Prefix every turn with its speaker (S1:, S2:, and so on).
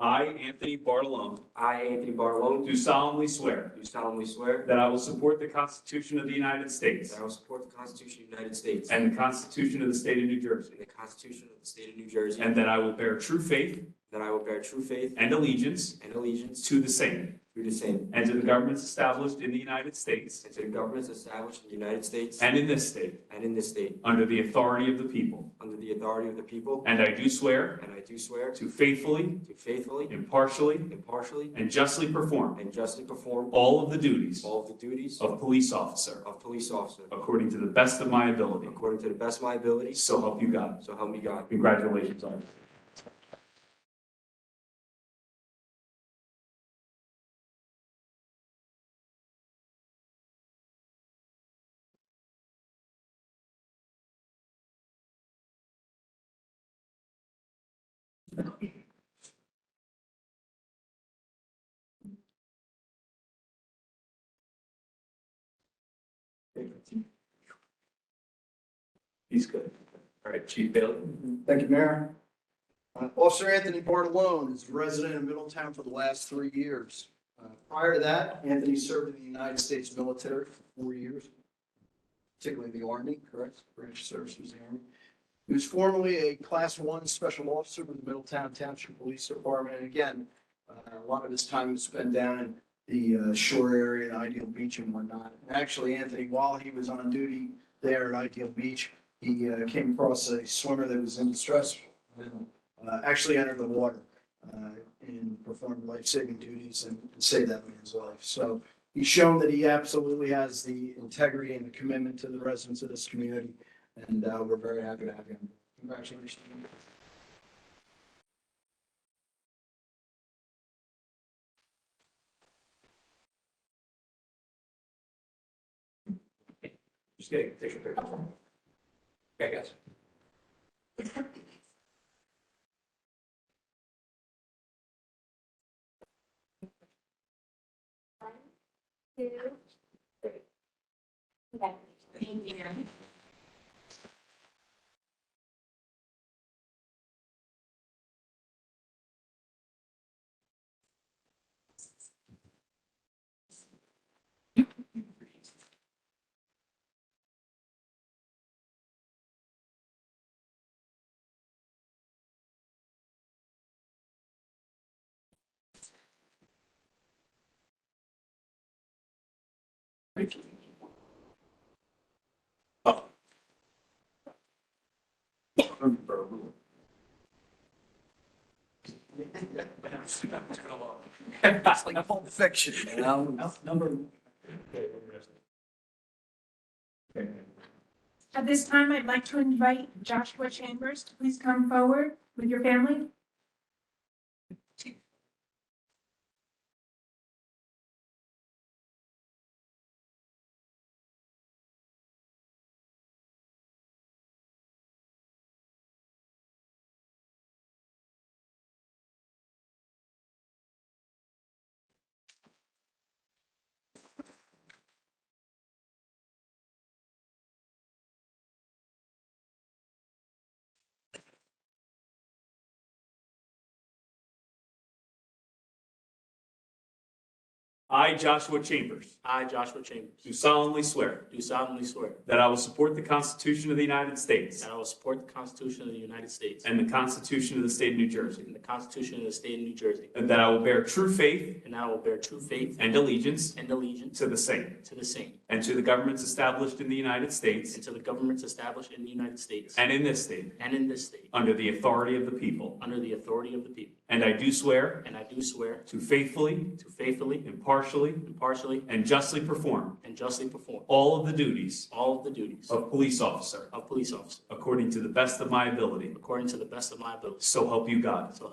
S1: I, Anthony Bartolome,
S2: I, Anthony Barlow,
S1: do solemnly swear
S2: do solemnly swear
S1: that I will support the Constitution of the United States
S2: that I will support the Constitution of the United States and
S1: and the Constitution of the State of New Jersey,
S2: the Constitution of the State of New Jersey,
S1: and
S2: and
S1: that I will bear true faith
S2: that I will bear true faith
S1: and allegiance
S2: and allegiance
S1: to the same
S2: to the same,
S1: and to the governments established in the United States
S2: and to the governments established in the United States
S1: and in this state
S2: and in this state,
S1: under the authority of the people.
S2: under the authority of the people,
S1: And I do swear
S2: and I do swear
S1: to faithfully,
S2: to faithfully,
S1: impartially,
S2: impartially,
S1: and justly perform
S2: and justly perform
S1: all of the duties
S2: all of the duties
S1: of police officer
S2: of police officer
S1: according to the best of my ability.
S2: according to the best of my ability,
S1: So help you God.
S2: so help me God.
S1: Congratulations, Arthur. He's good. All right, Chief Bailey.
S3: Thank you, Mayor. Uh, Officer Anthony Bartolone is a resident of Middletown for the last three years. Uh, Prior to that, Anthony served in the United States military for four years, particularly the Army, correct? British service was the Army. He was formerly a Class One Special Officer with the Middletown Township Police Department. And again, uh, a lot of his time was spent down in the uh, shore area at Ideal Beach and whatnot. And Actually, Anthony, while he was on duty there at Ideal Beach, he uh, came across a swimmer that was in distress. and, Uh, actually entered the water uh, and performed life-saving duties and and saved that man's life. So he's shown that he absolutely has the integrity and the commitment to the residents of this community. And uh, we're very happy to have him. Congratulations.
S1: Just kidding, take your picture. Okay, guys.
S4: two, three. Okay, thank you.
S3: Fiction, you know?
S5: At this time, I'd like to invite Joshua Chambers to please come forward with your family.
S1: I, Joshua Chambers,
S2: I, Joshua Chambers,
S1: do solemnly swear
S2: do solemnly swear
S1: that I will support the Constitution of the United States
S2: that I will support the Constitution of the United States
S1: and the Constitution of the State of New Jersey,
S2: and the Constitution of the State of New Jersey,
S1: and that I will bear true faith
S2: and I will bear true faith
S1: and allegiance
S2: and allegiance
S1: to the same
S2: to the same
S1: and to the governments established in the United States
S2: and to the governments established in the United States
S1: and in this state
S2: and in this state
S1: under the authority of the people.
S2: under the authority of the people.
S1: And I do swear
S2: And I do swear
S1: to faithfully,
S2: to faithfully,
S1: impartially,
S2: impartially,
S1: and justly perform
S2: and justly perform
S1: all of the duties
S2: all of the duties
S1: of police officer
S2: of police officer
S1: according to the best of my ability.
S2: according to the best of my ability.
S1: So help you God.
S2: So help